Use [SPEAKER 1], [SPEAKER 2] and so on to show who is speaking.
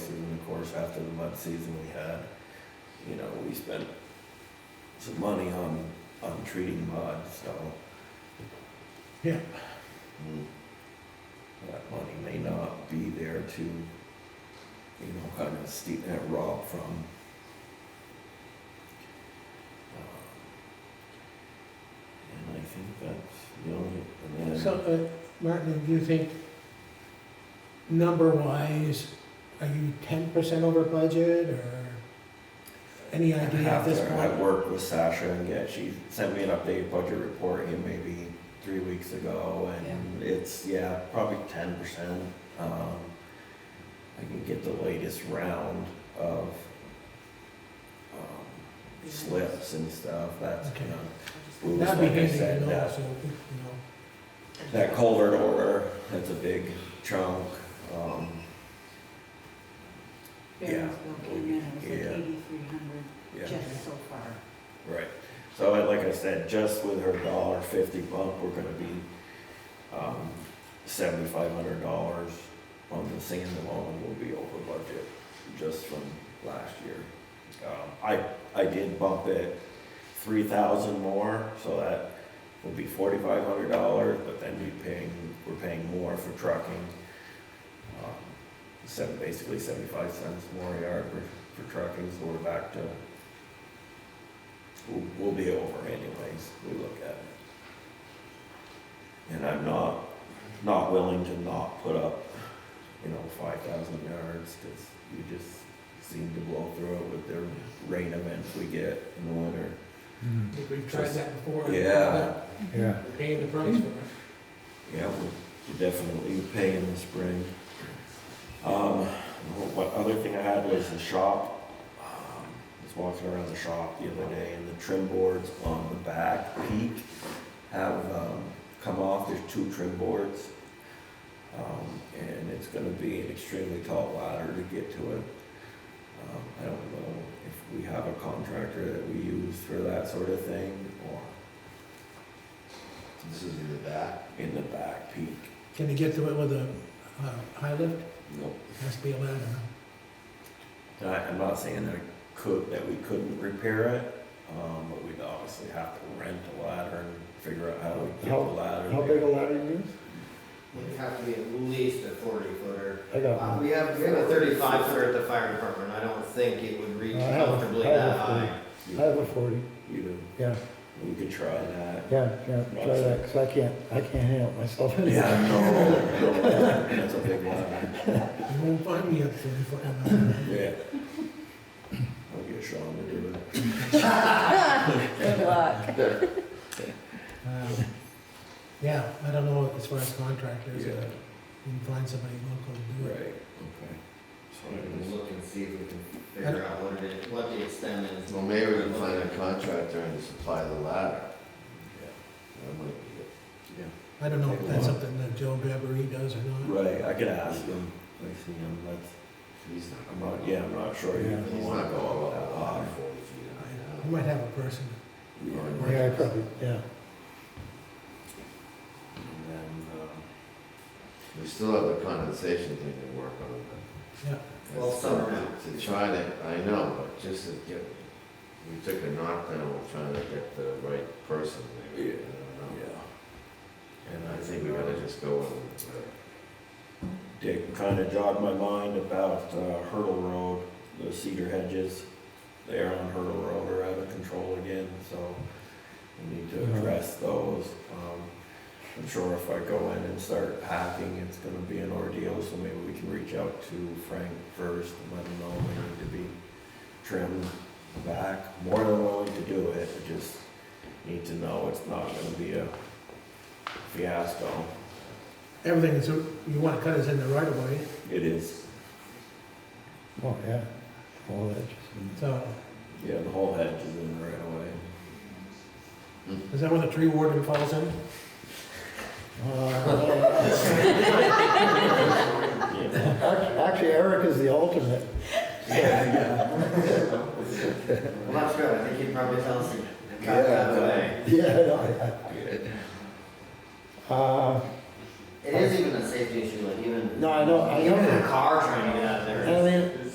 [SPEAKER 1] course, after the mud season we had, you know, we spent some money on, on treating mud, so.
[SPEAKER 2] Yeah.
[SPEAKER 1] Mm. That money may not be there to, you know, kind of steep that rob from. Um, Uh, And I think that's the only, and then.
[SPEAKER 2] So, uh, Martin, do you think, number-wise, are you ten percent over budget, or any idea at this
[SPEAKER 1] After I
[SPEAKER 2] point?
[SPEAKER 1] worked with Sasha and yeah, she sent me an updated budget report in maybe three weeks ago and it's, yeah, probably ten percent. Um, I can get the latest round of, um, slips and stuff, that's
[SPEAKER 2] Okay.
[SPEAKER 1] kind
[SPEAKER 3] Ooh.
[SPEAKER 1] of.
[SPEAKER 2] That'd be
[SPEAKER 1] like I
[SPEAKER 2] handy to
[SPEAKER 1] said,
[SPEAKER 2] know,
[SPEAKER 1] that-
[SPEAKER 2] so, you
[SPEAKER 1] That culvert order, that's a big chunk, um,
[SPEAKER 3] Barron'sville came in, it was like
[SPEAKER 1] Yeah.
[SPEAKER 3] eighty-three hundred
[SPEAKER 1] yeah.
[SPEAKER 3] just so far.
[SPEAKER 1] Right. So I- like I said, just with her dollar fifty bump, we're gonna be, um, seventy-five hundred dollars on the sand alone will be over budget, just from last year. Um, I, I did bump it three thousand more, so that will be forty-five hundred dollars, but then we paying, we're paying more for trucking. Um, Seven, basically seventy-five cents more a yard for, for trucking, so we're back to we'll, we'll be over anyways, we look at it. And I'm not, not willing to not put up, you know, five thousand yards, cause we just seem to blow through it with the rain events we get in the winter.
[SPEAKER 2] know. We've
[SPEAKER 1] tried
[SPEAKER 2] that before.
[SPEAKER 1] Yeah.
[SPEAKER 4] Yeah.
[SPEAKER 2] We're paying the price for it.
[SPEAKER 1] Yeah, we're definitely pay in the spring. Um, what other thing I had was the shop. Um, I was walking around the shop the other day and the trim boards on the back peak have, um, come off. There's two trim boards. Um, and it's gonna be an extremely tall ladder to get to it. Um, I don't know if we have a contractor that we use for that sort of thing or
[SPEAKER 5] This is in the back.
[SPEAKER 1] in the back peak.
[SPEAKER 2] Can you get to it with a, uh, high lift?
[SPEAKER 1] Nope.
[SPEAKER 2] Has to be a ladder,
[SPEAKER 1] And I, I'm not saying that I could, that we couldn't repair it, um, but we'd obviously have to rent a ladder and figure out how to get the
[SPEAKER 4] How-
[SPEAKER 1] ladder.
[SPEAKER 4] How big a ladder you use?
[SPEAKER 6] Would have to be at least a forty footer.
[SPEAKER 4] I got
[SPEAKER 6] Uh,
[SPEAKER 4] one.
[SPEAKER 6] we have, we have a thirty-five footer at the fire department, I don't think it would reach
[SPEAKER 4] I have a-
[SPEAKER 6] comfortably
[SPEAKER 4] I have a
[SPEAKER 6] that high.
[SPEAKER 1] You-
[SPEAKER 4] I have a forty,
[SPEAKER 1] You know,
[SPEAKER 4] yeah,
[SPEAKER 1] we could try that.
[SPEAKER 4] yeah, yeah, try that, 'cause I can't, I can't handle it myself.
[SPEAKER 1] Yeah, no, no, that's a big ladder,
[SPEAKER 2] huh? You won't find me up there before I'm out.
[SPEAKER 1] yeah. I'll get Sean to do it.
[SPEAKER 3] Good luck.
[SPEAKER 2] Um, Yeah, I don't know as far as contractors,
[SPEAKER 1] Yeah.
[SPEAKER 2] uh, you can find somebody local to do
[SPEAKER 1] Right,
[SPEAKER 2] it.
[SPEAKER 1] okay.
[SPEAKER 6] We can
[SPEAKER 1] So,
[SPEAKER 6] look and see if we can figure out what it is, what the extent is.
[SPEAKER 5] Well, maybe we can find a contractor and supply the ladder. That might be it.
[SPEAKER 1] yeah,
[SPEAKER 2] I don't know if
[SPEAKER 1] Take a
[SPEAKER 2] that's
[SPEAKER 1] look.
[SPEAKER 2] something that Joe Gabbery does or not.
[SPEAKER 1] right, I could ask him, I see him, that's,
[SPEAKER 5] He's not,
[SPEAKER 1] I'm not, yeah, I'm not sure.
[SPEAKER 4] Yeah.
[SPEAKER 5] he's not going all that high.
[SPEAKER 2] I- You might have a person.
[SPEAKER 1] Yeah.
[SPEAKER 4] Yeah, I probably, yeah,
[SPEAKER 1] And then, um,
[SPEAKER 5] We still have the condensation thing to work on.
[SPEAKER 2] Yeah.
[SPEAKER 5] That's
[SPEAKER 6] Well, summer now.
[SPEAKER 5] To try to, I know, but just to get, we took a knockdown, we're trying to get the right person
[SPEAKER 1] Yeah.
[SPEAKER 5] maybe. I don't know.
[SPEAKER 1] Yeah.
[SPEAKER 5] And I think we gotta just go with, uh,
[SPEAKER 1] Dick kind of jogged my mind about uh, Hurdle Road, the cedar hedges. They are on Hurdle Road are out of control again, so we need to
[SPEAKER 4] Yeah.
[SPEAKER 1] address those. Um, I'm sure if I go in and start hacking, it's gonna be an ordeal, so maybe we can reach out to Frank first and let him know we need to be trimmed back. More than willing to do it, I just need to know it's not gonna be a fiasco.
[SPEAKER 2] Everything that's, you want to cut is in the right of way,
[SPEAKER 1] It is,
[SPEAKER 4] oh, yeah, all that just.
[SPEAKER 2] so
[SPEAKER 1] yeah, the whole hedge is in the right of way.
[SPEAKER 2] is that where the tree warden falls in?
[SPEAKER 4] Uh,
[SPEAKER 1] Yeah,
[SPEAKER 4] act- Actually, Eric is the alternate.
[SPEAKER 1] yeah.
[SPEAKER 6] Well, that's good, I think he'd probably tell us. to
[SPEAKER 1] Yeah.
[SPEAKER 6] cut that away.
[SPEAKER 4] Yeah, I Uh, know. Uh,
[SPEAKER 6] It is even a safety issue, like even.
[SPEAKER 4] No, I know- I know
[SPEAKER 6] Even
[SPEAKER 4] it